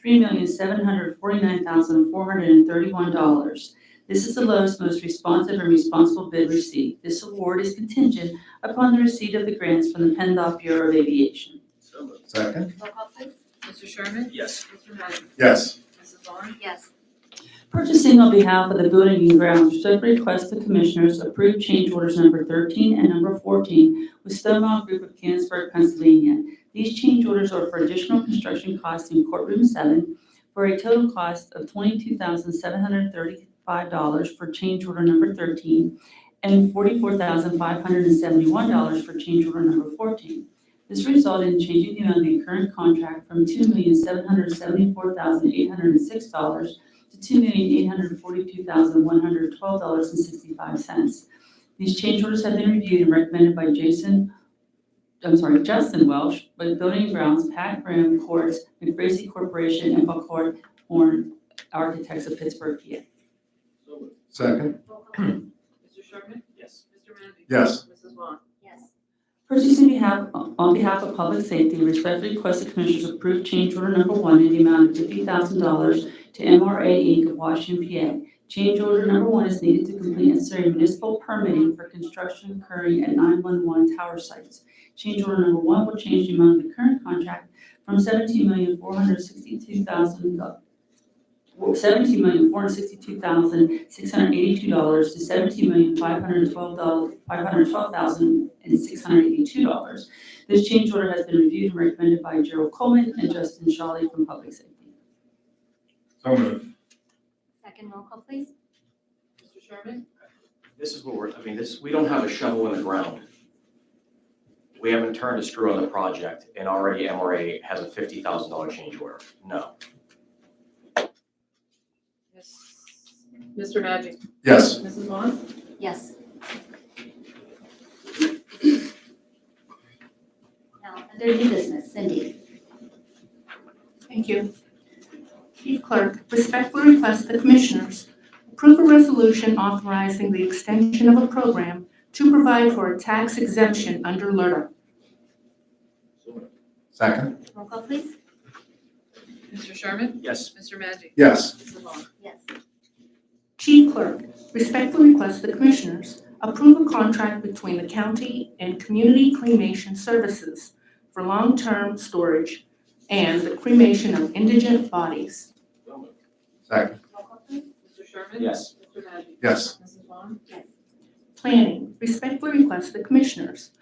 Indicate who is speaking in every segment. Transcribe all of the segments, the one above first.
Speaker 1: three million seven hundred forty-nine thousand four hundred and thirty-one dollars. This is the lowest, most responsive and responsible bid received. This award is contingent upon the receipt of the grants from the PennDOT Bureau of Aviation.
Speaker 2: So moved.
Speaker 3: Second?
Speaker 4: Roll call please.
Speaker 5: Mr. Sherman?
Speaker 2: Yes.
Speaker 5: Mr. Magic?
Speaker 3: Yes.
Speaker 5: Mrs. Vaughn?
Speaker 4: Yes.
Speaker 1: Purchasing on behalf of the Building and Grounds, Stoke requests the Commissioners approve change orders number 13 and number 14 with Stonewall Group of Canonsburg, Pennsylvania. These change orders are for additional construction costs in Courtroom 7 for a total cost of $22,735 for change order number 13 and $44,571 for change order number 14. This resulted in changing the amount of the current contract from $2,774,806 to two million eight hundred forty-two thousand one hundred twelve dollars and sixty-five cents. These change orders have been reviewed and recommended by Jason, I'm sorry, Justin Welsh, with Building and Grounds, Pat Graham, Courts, McBracy Corporation, and Buckhorn Horn Architects of Pittsburgh, PA.
Speaker 2: So moved.
Speaker 3: Second?
Speaker 5: Roll call vote. Mr. Sherman?
Speaker 2: Yes.
Speaker 5: Mr. Magic?
Speaker 3: Yes.
Speaker 5: Mrs. Vaughn?
Speaker 4: Yes.
Speaker 1: Purchasing behalf, on behalf of public safety, respectfully request the Commissioners approve change order number one in the amount of fifty thousand dollars to MRA Inc. of Washington, PA. Change order number one is needed to complete necessary municipal permitting for construction occurring at nine-one-one tower sites. Change order number one will change the amount of the current contract from seventeen million four hundred sixty-two thousand uh, seventeen million four hundred sixty-two thousand six hundred eighty-two dollars to seventeen million five hundred twelve dollars, five hundred twelve thousand and six hundred eighty-two dollars. This change order has been reviewed and recommended by Gerald Coleman and Justin Shawley from Public Safety.
Speaker 3: So moved.
Speaker 4: Second roll call please.
Speaker 5: Mr. Sherman?
Speaker 6: This is what we're, I mean, this, we don't have a shovel in the ground. We haven't turned a screw on the project and already MRA has a fifty thousand dollar change order. No.
Speaker 5: Yes. Mr. Magic?
Speaker 3: Yes.
Speaker 5: Mrs. Vaughn?
Speaker 4: Yes. Now, under new business, Cindy.
Speaker 7: Thank you. Chief Clerk, respectfully request the Commissioners approve a resolution authorizing the extension of a program to provide for a tax exemption under LRTA.
Speaker 2: So moved.
Speaker 3: Second?
Speaker 4: Roll call please.
Speaker 5: Mr. Sherman?
Speaker 6: Yes.
Speaker 5: Mr. Magic?
Speaker 3: Yes.
Speaker 5: Mrs. Vaughn?
Speaker 4: Yes.
Speaker 7: Chief Clerk, respectfully request the Commissioners approve a contract between the county and Community Cremation Services for long-term storage and the cremation of indigent bodies.
Speaker 2: So moved.
Speaker 3: Second?
Speaker 4: Roll call please.
Speaker 5: Mr. Sherman?
Speaker 6: Yes.
Speaker 5: Mr. Magic?
Speaker 3: Yes.
Speaker 5: Mrs. Vaughn?
Speaker 4: Yes.
Speaker 7: Planning, respectfully request the Commissioners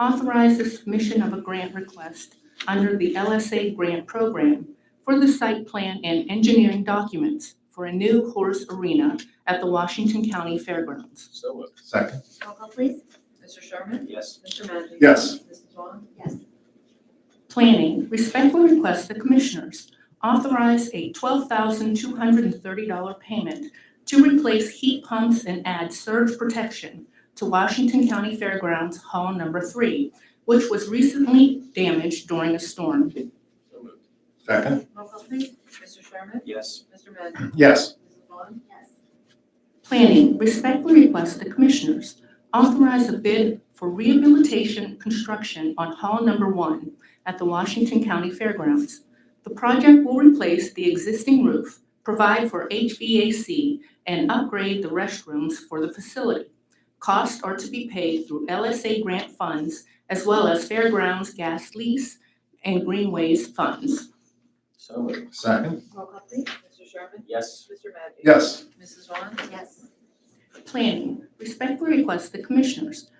Speaker 7: authorize the submission of a grant request under the LSA grant program for the site plan and engineering documents for a new horse arena at the Washington County Fairgrounds.
Speaker 2: So moved.
Speaker 3: Second?
Speaker 4: Roll call please.
Speaker 5: Mr. Sherman?
Speaker 6: Yes.
Speaker 5: Mr. Magic?
Speaker 3: Yes.
Speaker 5: Mrs. Vaughn?
Speaker 4: Yes.
Speaker 7: Planning respectfully requests the Commissioners authorize a $12,230 payment to replace heat pumps and add surge protection to Washington County Fairgrounds Hall Number 3, which was recently damaged during a storm.
Speaker 2: So moved.
Speaker 3: Second?
Speaker 5: Roll call please. Mr. Sherman?
Speaker 6: Yes.
Speaker 5: Mr. Magic?
Speaker 3: Yes.
Speaker 5: Mrs. Vaughn?
Speaker 4: Yes.
Speaker 7: Planning respectfully requests the Commissioners authorize a bid for rehabilitation construction on Hall Number 1 at the Washington County Fairgrounds. The project will replace the existing roof, provide for HVAC, and upgrade the restrooms for the facility. Costs are to be paid through LSA grant funds as well as Fairgrounds gas lease and greenways funds.
Speaker 6: So moved.
Speaker 3: Second?
Speaker 4: Roll call please.
Speaker 5: Mr. Sherman?
Speaker 6: Yes.
Speaker 5: Mr. Magic?
Speaker 3: Yes.
Speaker 5: Mrs. Vaughn?
Speaker 4: Yes.
Speaker 7: Planning respectfully requests the Commissioners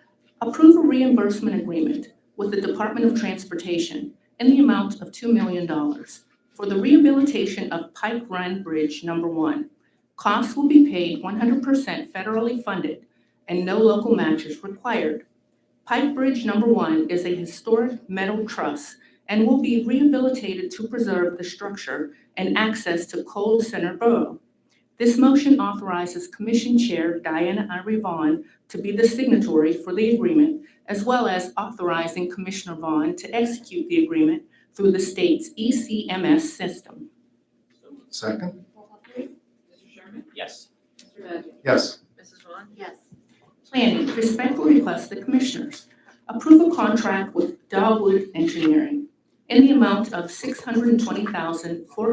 Speaker 7: approve a reimbursement agreement with the Department of Transportation in the amount of $2 million for the rehabilitation of Pike Run Bridge Number One. Costs will be paid 100% federally funded and no local match is required. Pike Bridge Number One is a historic metal truss and will be rehabilitated to preserve the structure and access to Cole Center Borough. This motion authorizes Commission Chair Diana Irie Vaughn to be the signatory for the agreement, as well as authorizing Commissioner Vaughn to execute the agreement through the state's E ECMS system.
Speaker 2: So moved.
Speaker 3: Second?
Speaker 4: Roll call please.
Speaker 5: Mr. Sherman?
Speaker 6: Yes.
Speaker 5: Mr. Magic?
Speaker 3: Yes.
Speaker 5: Mrs. Vaughn?
Speaker 4: Yes.
Speaker 7: Planning respectfully requests the Commissioners approve a contract with Dogwood Engineering in the amount of six hundred and twenty thousand four